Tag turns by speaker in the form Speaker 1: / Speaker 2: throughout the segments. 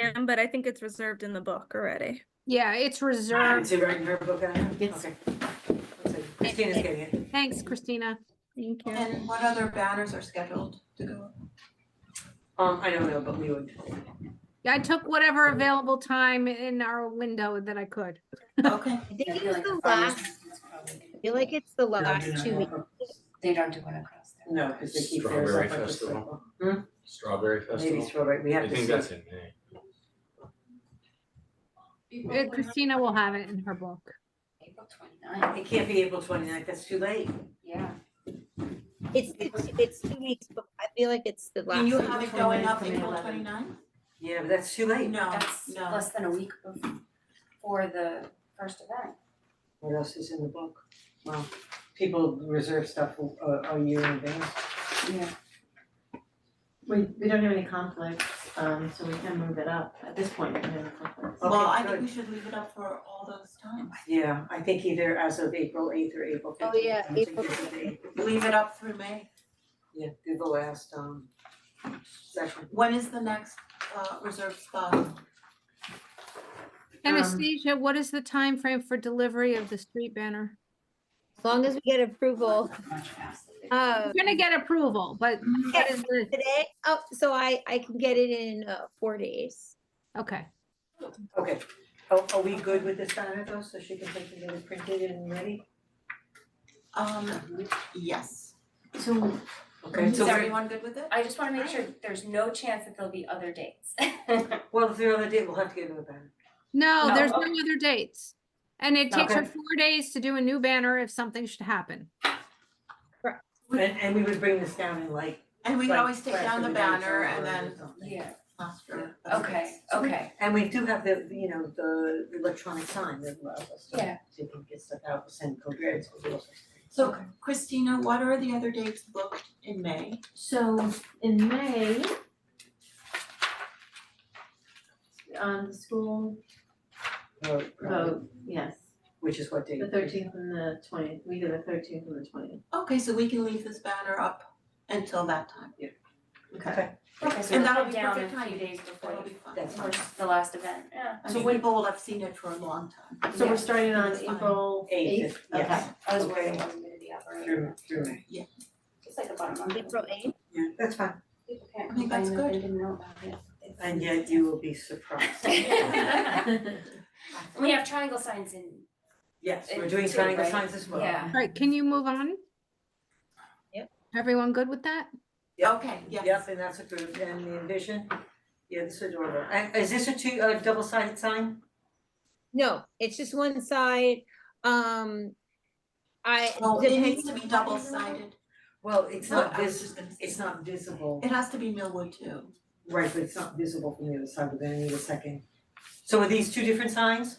Speaker 1: am, but I think it's reserved in the book already.
Speaker 2: Yeah, it's
Speaker 3: It's
Speaker 2: reserved.
Speaker 3: a regular book, I have,
Speaker 4: Yes.
Speaker 3: okay. That's it. Christina's getting it.
Speaker 2: Thanks, Christina.
Speaker 1: Thank you.
Speaker 5: And what other banners are scheduled to go? up?
Speaker 3: Um, I don't know, but we would,
Speaker 2: Yeah, I took whatever available time in our window that I could.
Speaker 5: Okay,
Speaker 4: I think
Speaker 6: I
Speaker 4: it's
Speaker 6: feel like
Speaker 4: the
Speaker 6: the farmers
Speaker 4: last,
Speaker 6: market's probably-
Speaker 4: I feel like it's the
Speaker 3: No,
Speaker 6: they're
Speaker 4: last
Speaker 6: not
Speaker 4: two weeks.
Speaker 6: gonna- They don't do one across there.
Speaker 3: no, because they keep theirs
Speaker 7: Strawberry
Speaker 3: up at the
Speaker 7: festival.
Speaker 3: Hmm,
Speaker 7: Strawberry
Speaker 3: maybe
Speaker 7: Festival.
Speaker 3: strawberry, we
Speaker 7: I
Speaker 3: have to
Speaker 7: think
Speaker 3: see.
Speaker 7: that's in May.
Speaker 2: Uh, Christina will have it in her book.
Speaker 6: April 29th.
Speaker 3: It can't be April 29th. that's too late.
Speaker 6: yeah.
Speaker 4: It's, it's, it's two weeks, but I feel like it's the last.
Speaker 5: can you
Speaker 4: week.
Speaker 5: have it going up
Speaker 6: April
Speaker 5: April
Speaker 6: 29th.
Speaker 5: 29th?
Speaker 3: Yeah, but that's too late.
Speaker 5: No,
Speaker 6: That's
Speaker 5: Oh, no.
Speaker 6: less than a week before the first event.
Speaker 3: What else is in the book? Well, people reserve stuff uh, a, a year in advance.
Speaker 6: Yeah.
Speaker 8: We, we don't have any conflicts, um, so we can move it up. At this point, we don't have any conflicts.
Speaker 5: Well,
Speaker 3: Okay,
Speaker 5: I think
Speaker 3: good.
Speaker 5: we should leave it up for all those times.
Speaker 3: Yeah, I think either as of April eighth or April
Speaker 4: Oh,
Speaker 3: fifteenth.
Speaker 4: yeah, April
Speaker 5: Leave it up through May.
Speaker 3: Yeah, do the last, um, session.
Speaker 5: When is the next uh reserved spot?
Speaker 2: Anastasia, what is the time frame for delivery of the street banner?
Speaker 4: As long as we get approval,
Speaker 6: Much faster.
Speaker 4: uh,
Speaker 2: We're gonna get approval, but what is the,
Speaker 4: today, oh, so I, I can get it in, uh, four days.
Speaker 2: okay.
Speaker 3: Okay, are, are we good with this banner though, so she can take it and get it printed and ready?
Speaker 5: Um, yes.
Speaker 6: So Mm-hmm.
Speaker 3: Okay,
Speaker 5: Is
Speaker 3: so we're,
Speaker 5: everyone good with it?
Speaker 6: I just wanna make sure there's no chance that there'll be other dates.
Speaker 3: well, if the other day, we'll have to get another banner.
Speaker 2: No,
Speaker 6: No,
Speaker 2: there's no
Speaker 6: okay.
Speaker 2: other dates. And it takes her
Speaker 3: Okay.
Speaker 2: four days to do a new banner if something should happen.
Speaker 3: And, and we would bring this down in like.
Speaker 5: And we could
Speaker 3: like,
Speaker 5: always take
Speaker 3: press
Speaker 5: down the
Speaker 3: every day's
Speaker 5: banner
Speaker 3: over
Speaker 5: and
Speaker 3: or
Speaker 5: then
Speaker 3: something.
Speaker 6: Yeah,
Speaker 5: plaster. it.
Speaker 6: okay, okay.
Speaker 3: And we do have the, you know, the electronic sign that allows us to,
Speaker 6: Yeah.
Speaker 3: to get stuff out, send coherence.
Speaker 5: So Christina, what are the other dates booked in May?
Speaker 8: So in May, um, the school vote, yes,
Speaker 3: um, Which is what day?
Speaker 8: the thirteenth and the twentieth, we do the thirteenth and the twentieth.
Speaker 5: Okay, so we can leave this banner up until that time.
Speaker 3: Okay,
Speaker 6: Okay, so
Speaker 5: And
Speaker 6: it'll
Speaker 5: that'll
Speaker 6: come
Speaker 5: be
Speaker 6: down a
Speaker 5: perfect
Speaker 6: few
Speaker 5: timing.
Speaker 6: days before
Speaker 5: That'll
Speaker 6: the,
Speaker 5: be fun.
Speaker 3: that's fine.
Speaker 6: first- the last event, yeah.
Speaker 5: I
Speaker 8: So
Speaker 5: mean,
Speaker 8: we-
Speaker 5: people will have seen it for a long time.
Speaker 8: So we're starting on
Speaker 5: That's fine.
Speaker 8: April
Speaker 3: Eighth,
Speaker 8: eighth?
Speaker 3: yes.
Speaker 6: I was worried it wasn't gonna be operating,
Speaker 3: Through, through May.
Speaker 6: it's like about a month.
Speaker 4: April eighth,
Speaker 3: Yeah, that's fine.
Speaker 6: People can't
Speaker 5: I think that's
Speaker 6: complain that
Speaker 5: good.
Speaker 6: They didn't know about it. It's-
Speaker 3: And yet you will be surprised.
Speaker 8: Okay.
Speaker 6: We have triangle signs in,
Speaker 3: Yes, we're
Speaker 6: It's
Speaker 3: doing
Speaker 6: two,
Speaker 3: triangle
Speaker 6: right?
Speaker 3: signs as well.
Speaker 6: yeah.
Speaker 2: All right, can you move on?
Speaker 4: Yep.
Speaker 2: Everyone good with that?
Speaker 5: Okay, yes.
Speaker 3: Yes, and that's approved, and the envision, yeah, this is adorable. And is this a two, a double sided sign?
Speaker 4: no, it's just one side, um, I.
Speaker 5: Well, it needs
Speaker 4: depending
Speaker 5: to be
Speaker 4: on-
Speaker 5: double sided.
Speaker 3: Well, it's
Speaker 5: No,
Speaker 3: not
Speaker 5: I was
Speaker 3: vis,
Speaker 5: just gonna say-
Speaker 3: it's not visible,
Speaker 5: It has to be Millwood too.
Speaker 3: right, but it's not visible from the other side, we're gonna need a second. So are these two different signs?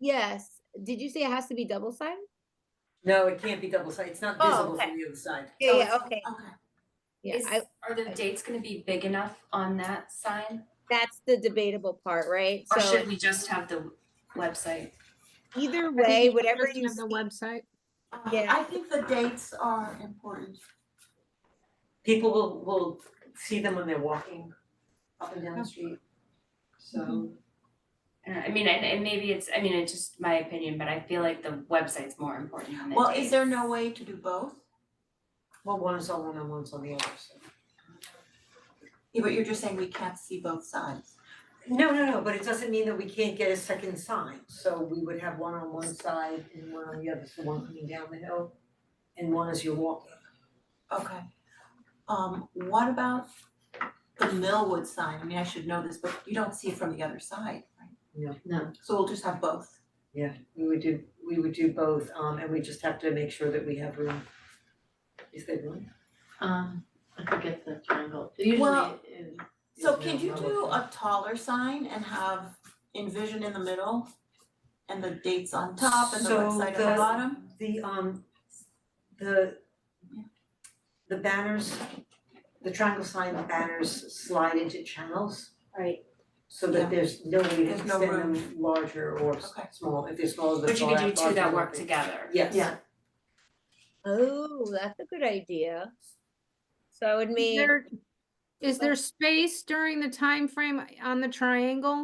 Speaker 4: Yes, did you say it has to be double sided?
Speaker 3: No, it can't be double sided, it's not
Speaker 4: Oh,
Speaker 3: visible
Speaker 4: okay.
Speaker 3: from the other side.
Speaker 4: Yeah,
Speaker 5: Oh,
Speaker 4: yeah,
Speaker 5: it's-
Speaker 4: okay,
Speaker 5: Okay.
Speaker 4: yeah,
Speaker 6: Is-
Speaker 4: I,
Speaker 6: Are the dates gonna be big enough on that sign?
Speaker 4: that's the debatable part, right? So
Speaker 6: Or should we just have the website?
Speaker 4: either
Speaker 2: I think
Speaker 4: way,
Speaker 2: it's
Speaker 4: whatever
Speaker 2: Just
Speaker 4: you,
Speaker 2: have The
Speaker 4: see-
Speaker 2: website.
Speaker 5: Uh,
Speaker 4: Yeah.
Speaker 5: I think the dates are important.
Speaker 3: People will, will see them when they're walking up and down the street. So,
Speaker 6: Uh, I mean, and, and maybe it's, I mean, it's just my opinion, but I feel like the website's more important than the
Speaker 5: Well, is there
Speaker 6: dates.
Speaker 5: no way to do both?
Speaker 3: well, one's on one and one's on the other, so.
Speaker 5: Yeah, but you're just saying we can't see both sides.
Speaker 3: No, no, no, but it doesn't mean that we can't get a second sign, so we would have one on one side and one on the other, so one coming down the hill and one as you're walking.
Speaker 5: Okay. Um, what about the Millwood sign? I mean, I should know this, but you don't see it from the other side, right?
Speaker 8: No,
Speaker 5: So we'll just have both.
Speaker 3: Yeah, we would do, we would do both, um, and we just have to make sure that we have room. Is there room?
Speaker 8: um, I forget the triangle. Usually
Speaker 5: Well,
Speaker 8: it-
Speaker 5: So
Speaker 3: There's
Speaker 5: could
Speaker 3: no
Speaker 5: you do
Speaker 3: Millwood.
Speaker 5: a taller sign and have envision in the middle? And the dates on top and the
Speaker 3: So
Speaker 5: website on
Speaker 3: the-
Speaker 5: the bottom?
Speaker 3: The, um, the, the banners, the triangle sign banners slide into channels.
Speaker 6: Right.
Speaker 3: So that
Speaker 5: Yeah.
Speaker 3: there's no way to
Speaker 5: There's no
Speaker 3: extend them larger or s-
Speaker 5: Okay.
Speaker 3: small, if they're smaller, they're
Speaker 6: But you could do two
Speaker 3: larger,
Speaker 6: that
Speaker 3: larger.
Speaker 6: work together.
Speaker 3: Yes.
Speaker 8: Yeah.
Speaker 4: oh, that's a good idea. So I would
Speaker 2: Is
Speaker 4: make,
Speaker 2: there, Is there space during the time frame on the triangle?